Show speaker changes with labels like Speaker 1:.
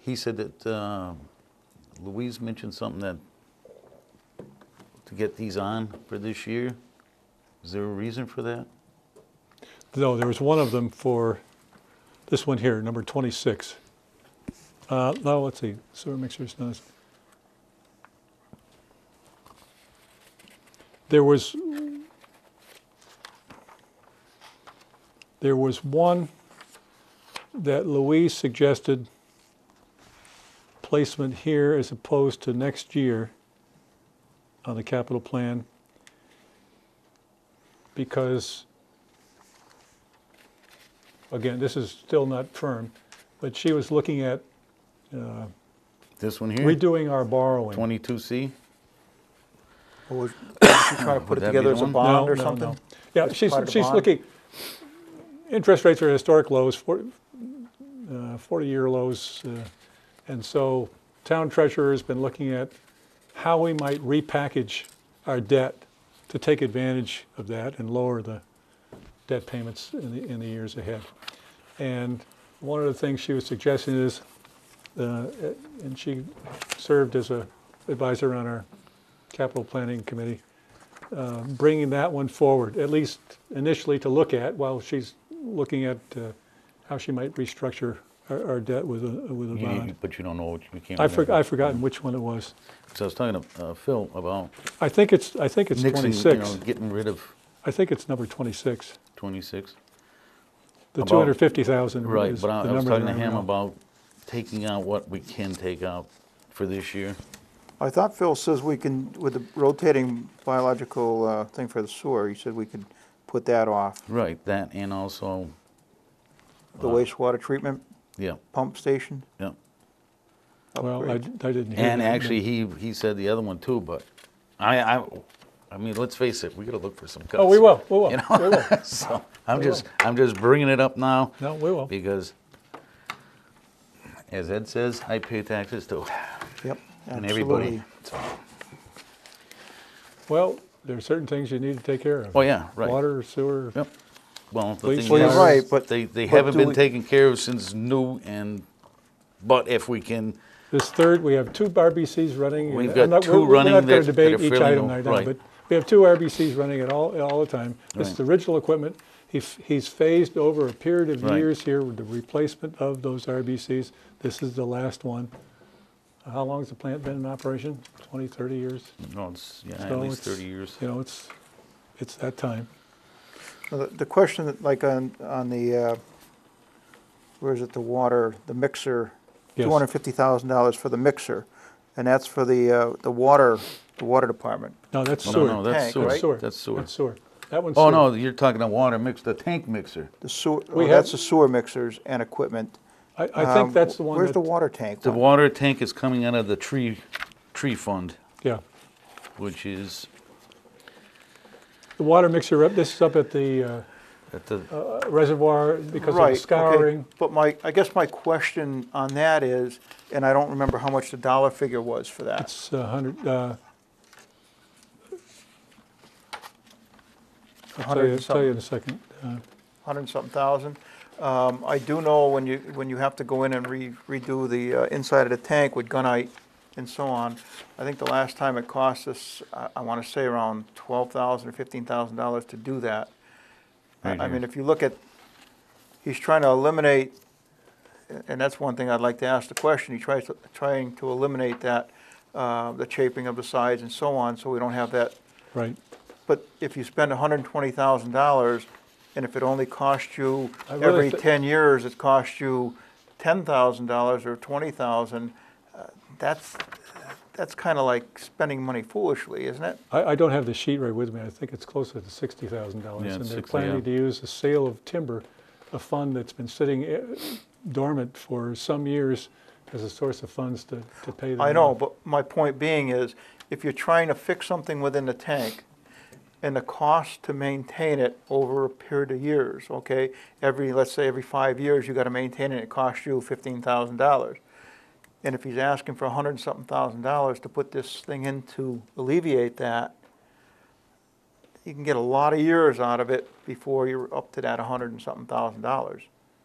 Speaker 1: he said that uh, Louise mentioned something that to get these on for this year. Is there a reason for that?
Speaker 2: No, there was one of them for this one here, number 26. Uh, no, let's see, sewer mixers, no. it's- There was, there was one that Louise suggested placement here as opposed to next year on the capital plan because again, this is still not firm, but she was looking at
Speaker 1: This one
Speaker 3: Mm.
Speaker 1: here,
Speaker 2: redoing our borrowing.
Speaker 1: 22C.
Speaker 3: Or was was she trying to
Speaker 1: Would
Speaker 3: put
Speaker 1: that
Speaker 3: it
Speaker 1: be
Speaker 3: together
Speaker 1: the
Speaker 3: as a
Speaker 1: one?
Speaker 3: bond
Speaker 2: No,
Speaker 3: or
Speaker 2: no, no.
Speaker 3: something?
Speaker 2: Yeah,
Speaker 3: It's
Speaker 2: she's,
Speaker 3: part of the
Speaker 2: she's
Speaker 3: bond?
Speaker 2: looking, interest rates are at historic lows, 40, uh, 40-year lows. uh, And so town treasurer's been looking at how we might repackage our debt to take advantage of that and lower the debt payments in the, in the years ahead. And one of the things she was suggesting is, uh, and she served as a advisor on our capital planning committee, uh, bringing that one forward, at least initially to look at, while she's looking at uh, how she might restructure our our debt with a, with a
Speaker 1: You
Speaker 2: bond.
Speaker 1: need, but you don't know what you can't.
Speaker 2: I forg
Speaker 1: remember.
Speaker 2: I've forgotten which one it was.
Speaker 1: So I was talking to uh, Phil about
Speaker 2: I think it's, I think it's
Speaker 1: nixing, you
Speaker 2: 26.
Speaker 1: know, getting rid of
Speaker 2: I think it's number 26.
Speaker 1: 26.
Speaker 2: The
Speaker 1: About-
Speaker 2: 250,000
Speaker 1: Right,
Speaker 2: is the
Speaker 1: but I,
Speaker 2: number.
Speaker 1: I was talking
Speaker 2: that
Speaker 1: to
Speaker 2: I
Speaker 1: him
Speaker 2: know.
Speaker 1: about taking out what we can take out for this year.
Speaker 3: I thought Phil says we can, with the rotating biological uh, thing for the sewer, he said we could put that off.
Speaker 1: Right, that and also,
Speaker 3: The wastewater treatment
Speaker 1: yeah,
Speaker 3: pump station
Speaker 1: yeah.
Speaker 2: Well, I, I
Speaker 3: upgrade.
Speaker 2: didn't hear.
Speaker 1: And
Speaker 2: that.
Speaker 1: actually, he, he said the other one too, but I, I, I mean, let's face it, we gotta look for some cuts.
Speaker 2: Oh, we will, we will,
Speaker 1: You
Speaker 2: we will.
Speaker 1: know, so, I'm just, I'm just bringing it up now
Speaker 2: No, we will.
Speaker 1: because as Ed says, I pay taxes too.
Speaker 3: Yep,
Speaker 1: And everybody.
Speaker 3: absolutely.
Speaker 2: Well, there are certain things you need to take care of.
Speaker 1: Oh, yeah, right.
Speaker 2: Water, sewer.
Speaker 1: Yep. Well, the
Speaker 2: Police
Speaker 1: thing
Speaker 2: Well, you're
Speaker 1: is,
Speaker 3: right, but-
Speaker 1: They, they
Speaker 3: but
Speaker 1: haven't
Speaker 3: do
Speaker 1: been
Speaker 3: we-
Speaker 1: taken care of since new and, but if we can,
Speaker 2: This third, we have two RBCs running. and
Speaker 1: We've
Speaker 2: I'm
Speaker 1: got
Speaker 2: not-
Speaker 1: two
Speaker 2: we're-
Speaker 1: running
Speaker 2: We're not going
Speaker 1: that- that
Speaker 2: to debate
Speaker 1: are
Speaker 2: each
Speaker 1: fairly
Speaker 2: item
Speaker 1: no-
Speaker 2: right now,
Speaker 1: right.
Speaker 2: but we have two RBCs running at all, all the time. This is
Speaker 1: Right.
Speaker 2: the original equipment. He's, he's phased over a period of
Speaker 1: Right.
Speaker 2: years here with the replacement of those RBCs. This is the last one. How long's the plant been in operation? 20, 30 years?
Speaker 1: no, it's, yeah, at
Speaker 2: So
Speaker 1: least
Speaker 2: it's-
Speaker 1: thirty years.
Speaker 2: You know, it's, it's that time.
Speaker 3: Now, The the question, that, like on, on the, uh, where is it, the water, the mixer,
Speaker 2: Yes.
Speaker 3: $250,000 for the mixer, and that's for the, uh, the water, the water department.
Speaker 2: No, that's
Speaker 1: No,
Speaker 2: sewer.
Speaker 1: no, that's
Speaker 3: Tank, right?
Speaker 1: sewer, that's sewer.
Speaker 2: That's sewer. That one's
Speaker 1: Oh,
Speaker 2: sewer.
Speaker 1: no, you're talking a water mix, the tank mixer.
Speaker 3: The sewer,
Speaker 2: We
Speaker 3: oh, that's
Speaker 2: have-
Speaker 3: the sewer mixers and equipment.
Speaker 2: I, I think
Speaker 3: Um,
Speaker 2: that's the one
Speaker 3: Where's
Speaker 2: that-
Speaker 3: the water tank?
Speaker 1: The
Speaker 3: one?
Speaker 1: water tank is coming out of the tree, tree fund,
Speaker 2: Yeah.
Speaker 1: which is
Speaker 2: The water mixer, up. this is up at the uh,
Speaker 1: at the,
Speaker 2: uh, reservoir because of
Speaker 3: Right,
Speaker 2: the
Speaker 3: okay.
Speaker 2: scouring.
Speaker 3: But my, I guess my question on that is, and I don't remember how much the dollar figure was for that.
Speaker 2: It's a hundred, uh,
Speaker 3: a
Speaker 2: I'll
Speaker 3: hundred
Speaker 2: tell you,
Speaker 3: and
Speaker 2: tell you in
Speaker 3: something-
Speaker 2: a second. Uh,
Speaker 3: Hundred and something thousand. Um, I do know when you, when you have to go in and re- redo the uh, inside of the tank with gunite and so on, I think the last time it cost us, I, I wanna say around twelve thousand or fifteen thousand dollars to do that. I-
Speaker 1: Right
Speaker 3: I
Speaker 1: here.
Speaker 3: mean, if you look at, he's trying to eliminate, a- and that's one thing I'd like to ask the question, he tries, to- trying to eliminate that, uh, the shaping of the sides and so on, so we don't have that.
Speaker 2: Right,
Speaker 3: But if you spend hundred and twenty thousand dollars, and if it only costs you,
Speaker 2: I really
Speaker 3: every
Speaker 2: thi-
Speaker 3: ten years, it costs you ten thousand dollars or twenty thousand, uh, that's, that's kinda like spending money foolishly, isn't it?
Speaker 2: I, I don't have the sheet right with me, I think it's closer to sixty thousand dollars.
Speaker 1: Yeah,
Speaker 2: And
Speaker 1: it's
Speaker 2: they're
Speaker 1: 60,
Speaker 2: planning
Speaker 1: yeah.
Speaker 2: to use the sale of timber, a fund that's been sitting eh, dormant for some years as a source of funds to, to pay them.
Speaker 3: I know,
Speaker 2: off.
Speaker 3: but my point being is, if you're trying to fix something within the tank, and the cost to maintain it over a period of years, okay? Every, let's say, every five years, you gotta maintain it, it costs you fifteen thousand dollars. And if he's asking for a hundred and something thousand dollars to put this thing in to alleviate that, you can get a lot of years out of it before you're up to that hundred and something thousand dollars.